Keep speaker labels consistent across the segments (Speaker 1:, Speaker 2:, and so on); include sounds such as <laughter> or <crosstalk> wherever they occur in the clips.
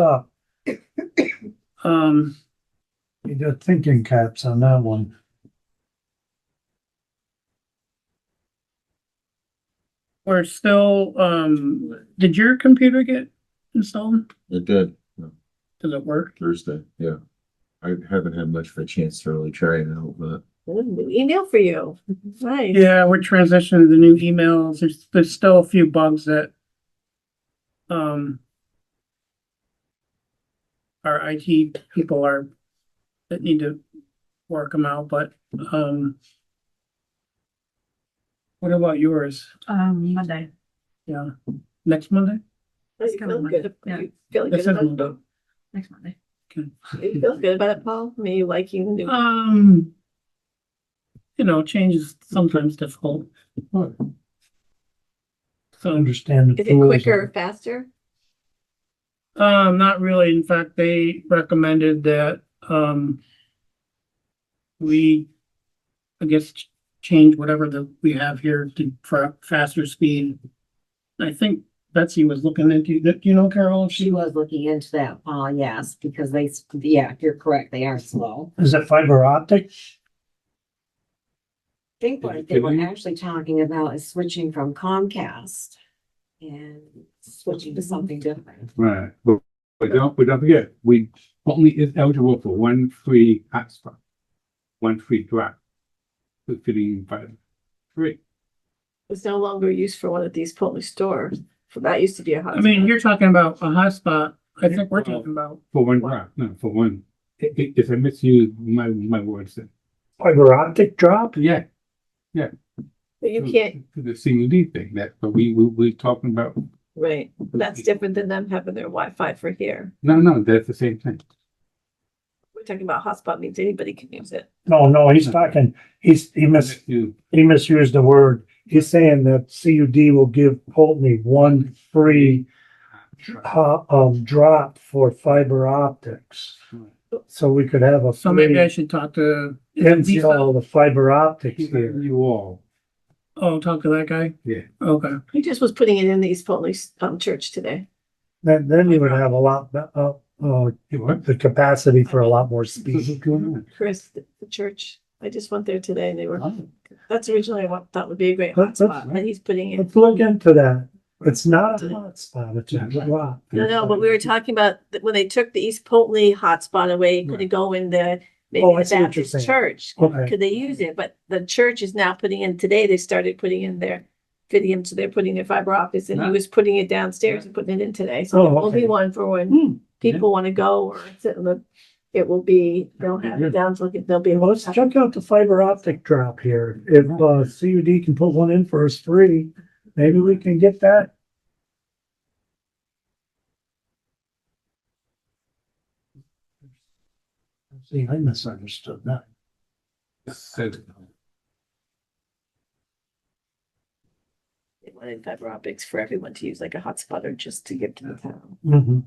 Speaker 1: up.
Speaker 2: Um,
Speaker 1: You got thinking caps on that one.
Speaker 2: we're still, um, did your computer get installed?
Speaker 3: It did
Speaker 2: Does it work?
Speaker 3: Thursday, yeah. I haven't had much of a chance to really try it out, but
Speaker 4: Ooh, new Email for you. Nice.
Speaker 2: Yeah, we're transitioning to the new emails. There's, there's still a few bugs that um our IT people are that need to work them out, but um what about yours?
Speaker 5: Um, Monday.
Speaker 2: Yeah, next Monday?
Speaker 4: Oh, You feel
Speaker 5: Coming
Speaker 4: good.
Speaker 5: Monday,
Speaker 4: You
Speaker 2: This
Speaker 4: feel good
Speaker 2: is
Speaker 4: about,
Speaker 2: Monday.
Speaker 5: Next Monday.
Speaker 4: you feel good about it, Paul? Me liking the new.
Speaker 2: Um, you know, change is sometimes difficult, so.
Speaker 1: Understand the
Speaker 4: Is it
Speaker 1: tools.
Speaker 4: quicker or faster?
Speaker 2: Um, not really. In fact, they recommended that, um, we, I guess, ch- change whatever that we have here to for faster speed. I think Betsy was looking into, that. you know, Carol, if
Speaker 6: She
Speaker 2: she,
Speaker 6: was looking into that, Paul, yes, because they, s- yeah, you're correct, they are slow.
Speaker 1: Is it fiber optic?
Speaker 6: I think what they were actually talking about is switching from Comcast and switching to something different.
Speaker 7: Right, but, but don't, but don't forget, we only is eligible for one free hotspot. One free drop. For fitting by free.
Speaker 4: It's no longer used for one of these Polish stores. So that used to be a hot.
Speaker 2: I mean, you're talking about a hotspot. I think we're talking about,
Speaker 7: for one drop, no, for one. It, it, it's a misuse, my, my words.
Speaker 1: Fiber optic drop?
Speaker 7: Yeah.
Speaker 4: But you
Speaker 7: to-
Speaker 4: can't,
Speaker 7: To the CUD thing, that, but we, we, we're talking about,
Speaker 4: right. That's different than them having their Wi-Fi for here.
Speaker 7: no, no, that's the same thing.
Speaker 4: We're talking about hotspot means anybody can use it.
Speaker 1: No, no, he's talking, he's, he mis,
Speaker 7: Misuse.
Speaker 1: he misused the word. He's saying that CUD will give Pulteney one free ho- um, drop for fiber optics. So we could have a
Speaker 2: so maybe I
Speaker 1: free
Speaker 2: should talk to,
Speaker 1: install of fiber optics
Speaker 7: He's
Speaker 1: here.
Speaker 7: letting you all,
Speaker 2: oh, talk to that guy?
Speaker 7: Yeah.
Speaker 2: Okay.
Speaker 4: He just was putting it in the East Polish um church today.
Speaker 1: Then, then you would have a lot, be- uh, uh,
Speaker 7: you what?
Speaker 1: the capacity for a lot
Speaker 2: <laughs>
Speaker 1: more
Speaker 7: What's
Speaker 1: speed.
Speaker 7: going on?
Speaker 4: Chris, the the church. I just went there today and they were,
Speaker 7: Oh.
Speaker 4: that's originally what thought would be a great
Speaker 1: That's- that's
Speaker 4: hotspot. And he's putting in
Speaker 1: Let's look into that. It's not a hotspot, it's a drop.
Speaker 4: No, no, but we were talking about th- when they took the East Polteny hotspot away, could it
Speaker 7: Right.
Speaker 4: go in the maybe
Speaker 1: Oh, I
Speaker 4: the
Speaker 1: see what you're saying.
Speaker 4: Baptist church?
Speaker 1: Okay,
Speaker 4: Could they use it? But the church is now putting in, today they started putting in their Fidium, so they're putting their fiber optics and he
Speaker 7: Nice.
Speaker 4: was putting it downstairs and putting it in today. So
Speaker 1: Oh,
Speaker 4: it will be
Speaker 1: okay. Mm-hmm.
Speaker 4: one for
Speaker 7: Hmm.
Speaker 4: when people want to go or sit in the, it will be, they'll have it
Speaker 7: Good.
Speaker 4: down, so it- they'll be.
Speaker 1: well, let's check out the fiber optic drop here. If, uh, CUD can put one in for us free, maybe we can get that. See, I misunderstood that.
Speaker 7: Said-
Speaker 4: They wanted fiber optics for everyone to use like a hotspot or just to give to the town.
Speaker 1: Mhm.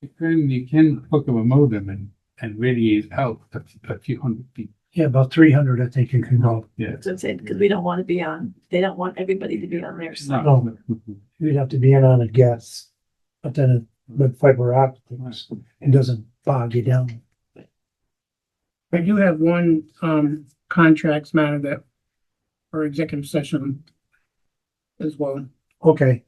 Speaker 7: You can, you can hook up a modem and, and radiate out a, f- a few hundred feet.
Speaker 1: Yeah, about three hundred, I think you can go.
Speaker 7: Yeah.
Speaker 4: That's what I'm saying, because we don't want to be on, they don't want everybody to be on their side.
Speaker 7: No.
Speaker 1: You'd have to be in on a guess. But then it- with fiber optics, it doesn't bog you down.
Speaker 2: I do have one, um, contracts matter that for executive session as well.
Speaker 1: Okay.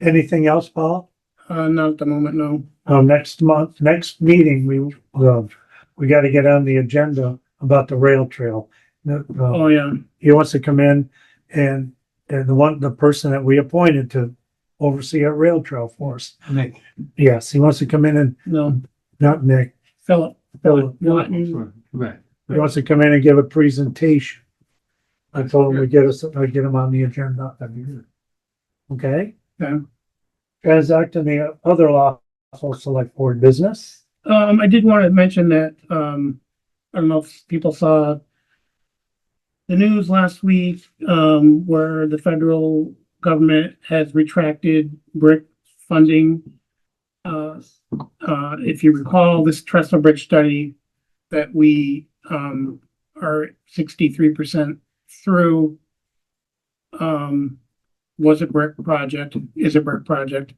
Speaker 1: Anything else, Paul?
Speaker 2: Uh, not at the moment, no.
Speaker 1: Um, next month, next meeting, we, um, we gotta get on the agenda about the rail trail. The- uh,
Speaker 2: Oh, yeah.
Speaker 1: He wants to come in and, and the one, the person that we appointed to oversee our rail trail for us.
Speaker 7: Nick.
Speaker 1: Yes, he wants to come in and,
Speaker 2: No,
Speaker 1: not Nick,
Speaker 2: Philip.
Speaker 1: Philip.
Speaker 2: Lawton.
Speaker 7: Right.
Speaker 1: he wants to come in and give a presentation. I told him we get us, I get him on the agenda. Okay?
Speaker 2: Okay.
Speaker 1: Transacting the other lawful select board business.
Speaker 2: Um, I did want to mention that, um, I don't know if people saw the news last week, um, where the federal government has retracted brick funding. Uh, uh, if you recall, this trestle bridge study that we, um, are sixty-three percent through, um, was a brick project, is a brick project.